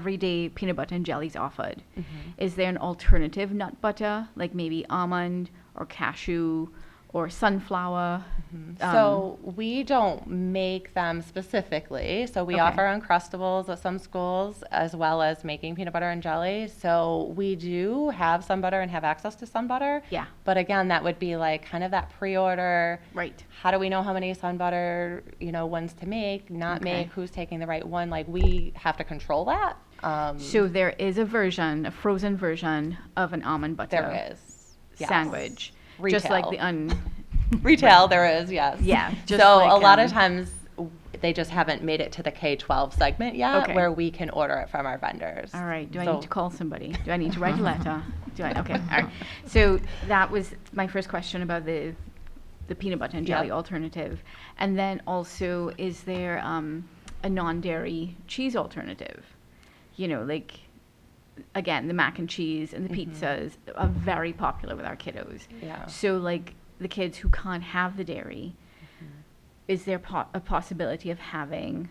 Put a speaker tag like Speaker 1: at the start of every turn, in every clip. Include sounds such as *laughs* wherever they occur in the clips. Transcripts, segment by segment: Speaker 1: everyday peanut butter and jelly is offered.
Speaker 2: Mm-hmm.
Speaker 1: Is there an alternative nut butter, like maybe almond or cashew or sunflower? Um,
Speaker 2: Mm-hmm. So we don't make them specifically. So we
Speaker 1: Okay.
Speaker 2: offer Uncrustables at some schools as well as making peanut butter and jelly. So we do have some butter and have access to sun butter.
Speaker 1: Yeah.
Speaker 2: But again, that would be like kind of that pre-order.
Speaker 1: Right.
Speaker 2: How do we know how many sun butter, you know, ones to make, not
Speaker 1: Okay.
Speaker 2: make, who's taking the right one? Like we have to control that. Um,
Speaker 1: So there is a version, a frozen version of an almond butter
Speaker 2: there is Yes.
Speaker 1: sandwich, just like the
Speaker 2: Retail.
Speaker 1: un.
Speaker 2: *laughs* Retail, there is, yes.
Speaker 1: Yeah, just
Speaker 2: so a
Speaker 1: like,
Speaker 2: lot
Speaker 1: um,
Speaker 2: of times w- they just haven't made it to the K 12 segment yet
Speaker 1: Okay.
Speaker 2: where we can order it from our vendors.
Speaker 1: All right. Do I
Speaker 2: So-
Speaker 1: need to call somebody? Do I need to write a letter? Do I?
Speaker 2: *laughs*
Speaker 1: Okay. All right. So that was my first question about the the peanut butter and jelly
Speaker 2: Yep.
Speaker 1: alternative, and then also is there um, a non-dairy cheese alternative? You know, like again, the mac and cheese and the pizzas are very popular with our kiddos.
Speaker 2: Mm-hmm. Yeah.
Speaker 1: So like the kids who can't have the dairy,
Speaker 2: Mm-hmm.
Speaker 1: is there po- a possibility of having?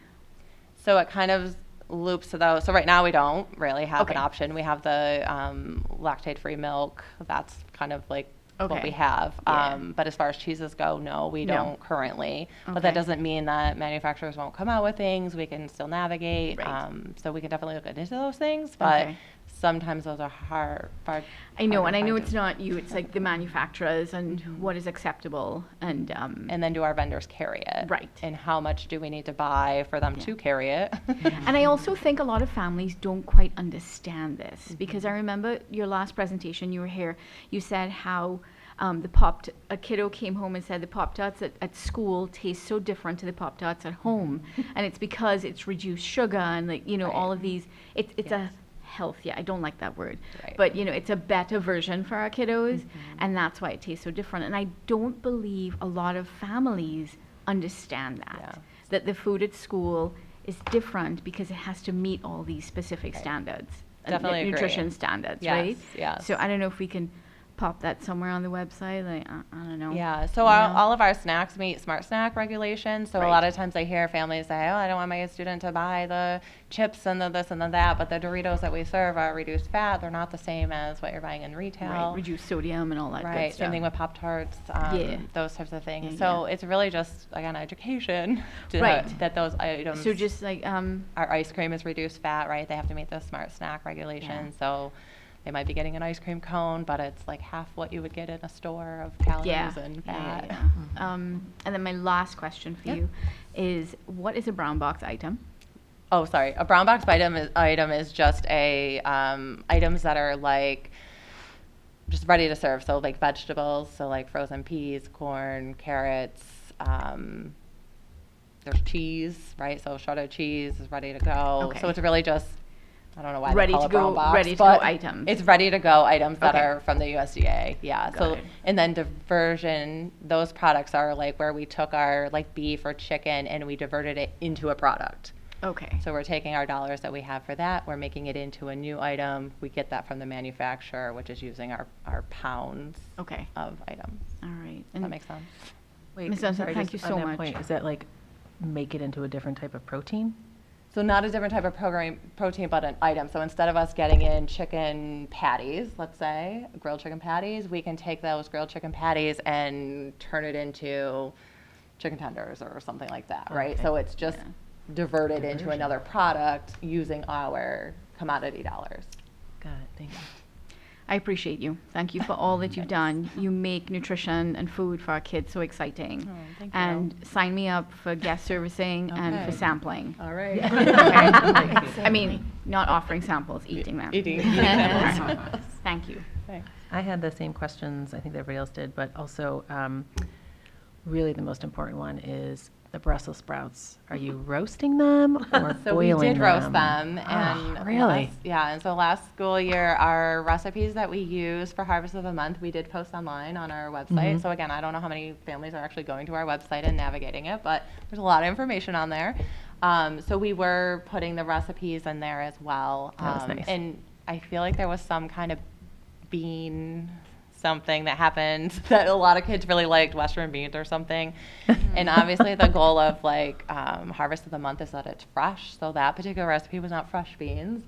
Speaker 2: So it kind of loops to those. So right now we don't really have
Speaker 1: Okay.
Speaker 2: an option. We have the um, lactate free milk. That's kind of like
Speaker 1: Okay.
Speaker 2: what we have.
Speaker 1: Yeah.
Speaker 2: Um, but as far as cheeses go, no, we
Speaker 1: No.
Speaker 2: don't currently. But that
Speaker 1: Okay.
Speaker 2: doesn't mean that manufacturers won't come out with things. We can still navigate.
Speaker 1: Right.
Speaker 2: Um, so we can definitely look into those things. But
Speaker 1: Okay.
Speaker 2: sometimes those are hard. hard
Speaker 1: I know,
Speaker 2: hard
Speaker 1: and
Speaker 2: to
Speaker 1: I know
Speaker 2: find.
Speaker 1: it's not you, it's like the manufacturers and what is acceptable and, um,
Speaker 2: And then do our vendors carry it?
Speaker 1: Right.
Speaker 2: And how much do we need to buy for them to carry it?
Speaker 1: *laughs* and I also think a lot of families don't quite understand this
Speaker 2: Mm-hmm.
Speaker 1: because I remember your last presentation, you were here, you said how um, the Pop, a kiddo came home and said the Pop Tarts at, at school taste so different to the Pop Tarts at home. and it's because it's reduced sugar and like, you know, all
Speaker 2: Mm-hmm. Right.
Speaker 1: of these, it, it's a health, yeah, I don't like that word.
Speaker 2: Right. Mm-hmm.
Speaker 1: But you know, it's a better version for our kiddos, and that's why it tastes so different. And I don't believe a lot of families understand that
Speaker 2: Yeah.
Speaker 1: that the food at school is different because it has to meet all these specific standards, uh, nu-
Speaker 2: Definitely agree.
Speaker 1: nutrition standards,
Speaker 2: Yes,
Speaker 1: right?
Speaker 2: yes.
Speaker 1: So I don't know if we can pop that somewhere on the website. Like I, I don't know.
Speaker 2: Yeah, so
Speaker 1: you
Speaker 2: our,
Speaker 1: know?
Speaker 2: all of our snacks meet smart snack regulations. So
Speaker 1: Right.
Speaker 2: a lot of times I hear families say, "Oh, I don't want my student to buy the chips and the this and the that," but the Doritos that we serve are reduced fat. They're not the same as what you're buying in
Speaker 1: right,
Speaker 2: retail.
Speaker 1: reduce sodium and all that. good
Speaker 2: Right,
Speaker 1: stuff.
Speaker 2: same thing with Pop Tarts, um,
Speaker 1: Yeah.
Speaker 2: those types of things.
Speaker 1: Yeah,
Speaker 2: so it's really just again education *laughs* to
Speaker 1: Right.
Speaker 2: that those items.
Speaker 1: So just like um,
Speaker 2: our ice cream is reduced fat, right? They have to meet the smart snack regulation. So they might be getting an ice cream cone, but it's like half what you would get in a store of calories
Speaker 1: yeah.
Speaker 2: and
Speaker 1: Yeah, yeah,
Speaker 2: fat.
Speaker 1: yeah. Um, and then my last question for
Speaker 2: Yep.
Speaker 1: you is, what is a brown box item?
Speaker 2: Oh, sorry. A brown box item is, item is just a um, items that are like just ready to serve. So like vegetables, so like frozen peas, corn, carrots. Um, there's cheese, right? So shredded cheese is ready to go.
Speaker 1: Okay.
Speaker 2: So it's really just I don't know why
Speaker 1: Ready
Speaker 2: they
Speaker 1: to
Speaker 2: call it brown
Speaker 1: go-
Speaker 2: box,
Speaker 1: ready to go
Speaker 2: but
Speaker 1: items.
Speaker 2: It's ready to go items that
Speaker 1: Okay.
Speaker 2: are from the USDA. Yeah.
Speaker 1: Got
Speaker 2: so
Speaker 1: it.
Speaker 2: and then diversion, those products are like where we took our like beef or chicken and we diverted it into a product.
Speaker 1: Okay.
Speaker 2: So we're taking our dollars that we have for that, we're making it into a new item. We get that from the manufacturer, which is using our, our pounds
Speaker 1: Okay.
Speaker 2: of items.
Speaker 1: All right.
Speaker 2: Does
Speaker 1: And-
Speaker 2: uh, that make sense?
Speaker 3: Wait,
Speaker 1: Ms.
Speaker 3: I'm
Speaker 1: Johnson,
Speaker 3: sorry,
Speaker 1: thank
Speaker 3: just
Speaker 1: you
Speaker 3: on
Speaker 1: so
Speaker 3: that
Speaker 1: much.
Speaker 3: point, Is that like, make it into a different type of protein?
Speaker 2: So not a different type of program, protein, but an item. So instead of us getting in chicken patties, let's say, grilled chicken patties, we can take those grilled chicken patties and turn it into chicken tenders or something like that, right? So it's just diverted into another product using our commodity dollars.
Speaker 3: Got it, thank you.
Speaker 1: I appreciate you. Thank you for all that
Speaker 2: *laughs*
Speaker 1: you've done. You make nutrition and food for our kids so exciting.
Speaker 2: Oh, thank you.
Speaker 1: and sign me up for guest servicing and for
Speaker 2: Okay. *laughs*
Speaker 1: sampling.
Speaker 2: All right.
Speaker 1: I mean, not offering samples, eating them.
Speaker 2: *laughs*
Speaker 1: *laughs*
Speaker 2: Eating-
Speaker 1: All
Speaker 2: eating
Speaker 1: right. *laughs* Thank you.
Speaker 3: I had the same questions, I think everybody else did, but also, um, really the most important one is the Brussels sprouts. Are *laughs* you roasting them or boiling them?
Speaker 2: So we did roast them, and
Speaker 3: Ah, Really?
Speaker 2: last- yeah. And so last school year, our recipes that we use for Harvest of the Month, we did post online on our website.
Speaker 3: Mm-hmm.
Speaker 2: So again, I don't know how many families are actually going to our website and navigating it, but there's a lot of information on there. Um, so we were putting the recipes in there as well.
Speaker 3: That was
Speaker 2: Um,
Speaker 3: nice.
Speaker 2: And I feel like there was some kind of bean something that happened *laughs* that a lot of kids really liked western beans or something
Speaker 3: *laughs*
Speaker 2: and obviously the goal of like um, harvest of the month is that it's fresh so that particular recipe was not fresh beans